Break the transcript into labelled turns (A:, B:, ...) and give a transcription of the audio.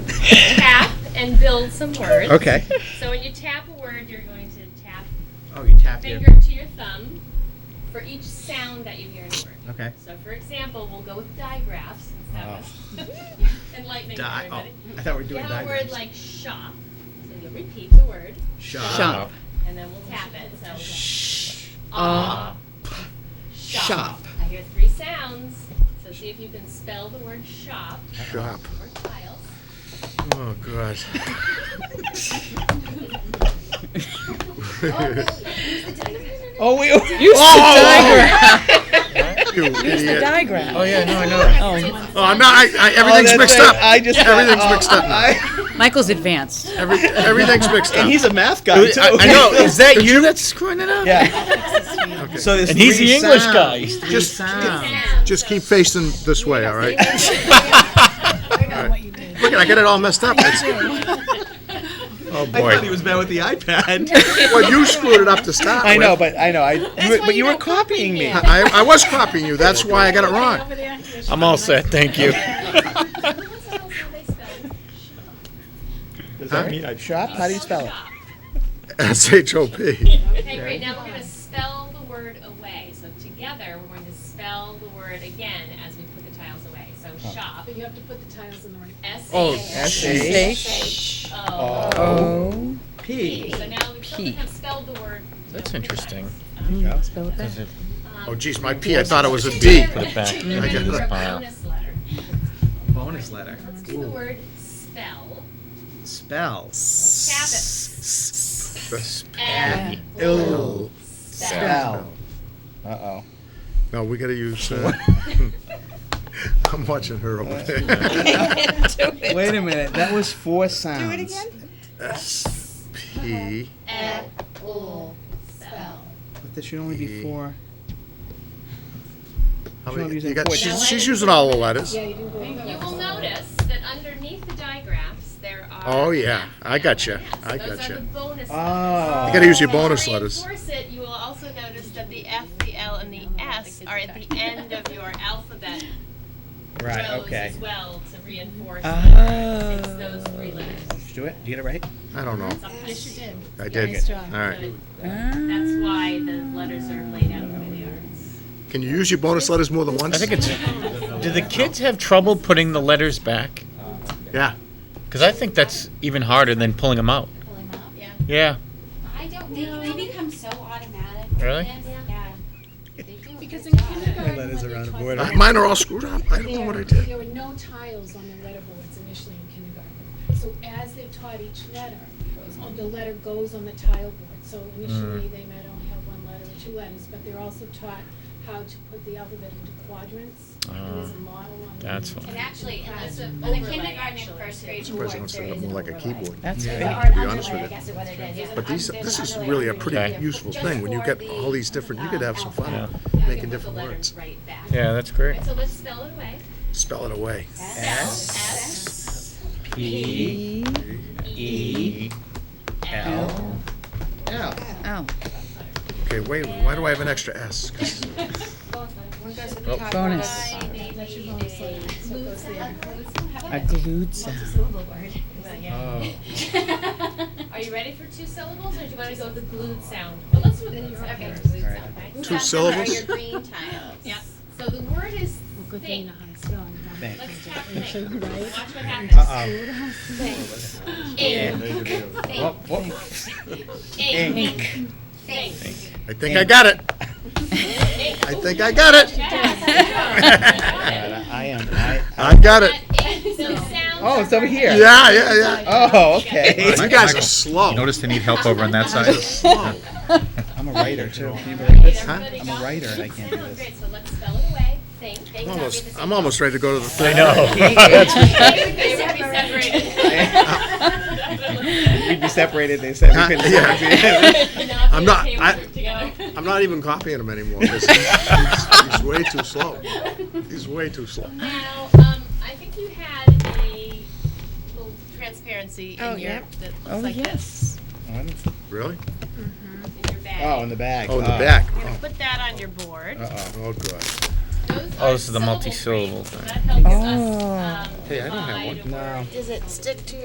A: tap and build some words.
B: Okay.
A: So when you tap a word, you're going to tap
B: Oh, you tapped here.
A: finger to your thumb for each sound that you hear in the word.
B: Okay. Oh.
A: So for example, we'll go with digraphs. since that was Enlightening for
B: Di-
A: everybody.
B: oh, I thought we were
A: You
B: doing
A: have a word
B: diagrams.
A: like shop, so you'll repeat the word,
B: Shop.
C: Shop.
A: and then we'll tap it, so.
B: Shh.
A: ah,
C: Shop.
A: I hear three sounds, so see if you can spell the word shop
B: Shop.
A: or tiles.
B: Oh, God.
C: Oh, we used the
B: you idiot.
C: diagram.
B: Oh, yeah, no, I know that.
C: Oh,
B: Oh, I'm not, I, I, everything's
C: that's
B: mixed
C: right.
B: up.
C: I just-
B: Everything's
C: oh,
B: mixed up now.
D: Michael's advanced.
B: Every, everything's mixed up.
C: and he's a math guy
B: I,
C: too.
B: I know, is that you that's screwing it up?
C: Yeah.
B: Okay.
C: So there's
E: And he's
C: three
E: the English
C: sounds.
E: guy.
B: Just-
A: Sounds,
B: Just
A: so-
B: keep facing this way, all right?
F: what you did.
B: Look, at I got it all messed up. It's- Oh,
C: I thought he
B: boy.
C: was bad with the iPad.
B: Well, you screwed it up to start
C: I know,
B: with.
C: but I know. I, you were- but you were copying me.
B: I, I was copying you, that's why I got it wrong.
F: Over there.
E: I'm all set, thank you.
A: Someone tell us how they spell
C: Does
B: Huh?
C: that mean I shop? How do you spell it?
A: shop.
B: S-H-O-P.
A: Okay, great. Now we're going to spell the word away. So together, we're going to spell the word again as we put the tiles away. So shop.
F: But you have to put the tiles in the right.
A: S
B: Oh,
A: H O.
C: O
A: P.
C: P.
A: So now we still have spelled the word.
E: That's interesting.
B: Oh, geez, my P, I thought it was a D.
E: Put it back.
A: We're
B: get
A: gonna do
B: it.
A: a bonus letter.
C: Bonus letter.
A: Let's do the word spell.
C: Spell.
A: Tap it. And
C: Ill.
A: spell.
C: Uh oh.
B: No, we gotta use, uh, I'm watching her over there.
C: Wait a minute. That was four sounds. Do it again.
B: S-P,
A: And spell.
C: But there should only
B: E.
C: be four.
B: how
C: She's
B: many,
C: using
B: you got,
C: four.
B: she's, she's using all the letters.
F: Yeah, you didn't go over.
A: You will notice that underneath the digraphs, there are.
B: Oh, yeah, I gotcha, I
A: Those are the
B: gotcha.
A: bonus
C: Oh.
B: You gotta use your
A: If you
B: bonus letters.
A: reinforce it, you will also notice that the F, the L, and the S are at the end of your alphabet
C: Right.
A: rows
C: Okay. Ah.
A: as well to reinforce it's those
C: Oh.
A: three letters.
C: Did you do it? Did you get it right?
B: I don't know,
A: Sometimes
F: Yes, you did.
B: I did.
F: Nice job.
B: All right,
A: that's why the letters are laid out the way they are.
B: can you use your bonus letters more than once?
E: I think it's. Do the kids have trouble putting the letters back?
B: Yeah,
E: Because I think that's even harder than pulling them out.
A: Yeah.
E: Yeah.
G: I don't think they become so automatic.
E: Really?
G: Yeah. They do.
F: Because in kindergarten, when
C: letters
F: they
C: are out of
F: taught
C: order.
B: Uh, mine are all screwed up, I don't know what I
F: there,
B: did.
F: there were no tiles on the letterboards initially in kindergarten. So as they've taught each letter, oh, the letter goes on the tile board. So initially, they might only have one letter or two letters, but they're also taught how to put the alphabet into quadrants. And there's a model on. the-
E: That's
G: And
E: fine.
G: actually, in
A: It's
G: the,
A: an
G: in
A: overlay,
G: the kindergarten
A: actually.
G: and first grade
B: Surprised
G: board,
B: I don't
G: there
B: set it up
G: is an
B: more like a
G: overlay.
B: keyboard.
C: That's
G: Or
C: right.
G: an
B: be honest
G: underlay, I
B: with you.
G: guess is what it is. There's an
B: But these,
G: un-
B: this is
G: there's an
B: really a
G: underlay
B: pretty
E: Okay.
B: useful
G: Just
B: thing, when you
G: for
B: get
G: the,
B: all these different, you could have some
E: Yeah.
B: fun
A: Now you can
B: making
A: put
B: different
A: the letters
B: words.
A: Right back.
E: Yeah, that's great.
A: So let's spell it away.
B: Spell it away.
A: S
C: P
A: E L.
C: L.
D: Oh,
B: Okay, wait, why do I have an extra S? 'Cause
D: bonus.
F: That's your bonus letter. So it goes there.
D: A glued sound.
A: Are you ready for two syllables, or do you want to go with the glued sound? Well, let's do the glued sound. Okay, glued sound. Okay.
B: Two syllables?
G: green tiles.
A: Yeah. So the word is
F: Well, good thing you
A: think.
F: know how to spell and not-
A: Let's tap think. Watch
F: Right?
A: what happens.
C: Uh
A: Ink.
C: oh. Whoa, whoa.
A: Ink. Think.
B: I think I got it. I think I got it.
A: Yes.
C: I am. I,
B: I got it.
A: But ink, so sounds
C: oh, it's over here.
B: Yeah, yeah, yeah.
C: Oh, okay.
B: You guys are slow.
H: Notice they need help over on that side.
B: Slow.
C: I'm a writer too. Can you believe this?
B: Huh?
C: I'm a writer and I can't do
A: Sound
C: this.
A: great. So let's spell it away. Think. Think.
B: I'm
A: I'll read
B: almost,
A: the
B: I'm
A: same.
B: almost ready to go to the thing.
A: They would
C: We'd be
A: be separated.
C: separated. They said
B: Huh?
C: we couldn't.
B: Yeah. I'm not- I-
A: Together.
B: I'm not even copying him anymore. He's, he's- he's way too slow. He's way too slow.
A: Now, um, I think you had a little transparency in your, that looks like this,
B: Really?
A: in your
C: Oh,
A: bag.
C: in the Uh, back.
B: Oh, in the back.
A: You're gonna put that on your board.
C: Uh-oh.
B: Oh, God.
A: Those
E: Oh,
A: are
E: this is the
A: syllable
E: multi-syllable
A: frames, so
E: thing.
A: That helps us, um,
B: Hey, Uh, I
A: divide a
B: don't have one.
A: word
C: No.
A: into
G: Does it stick to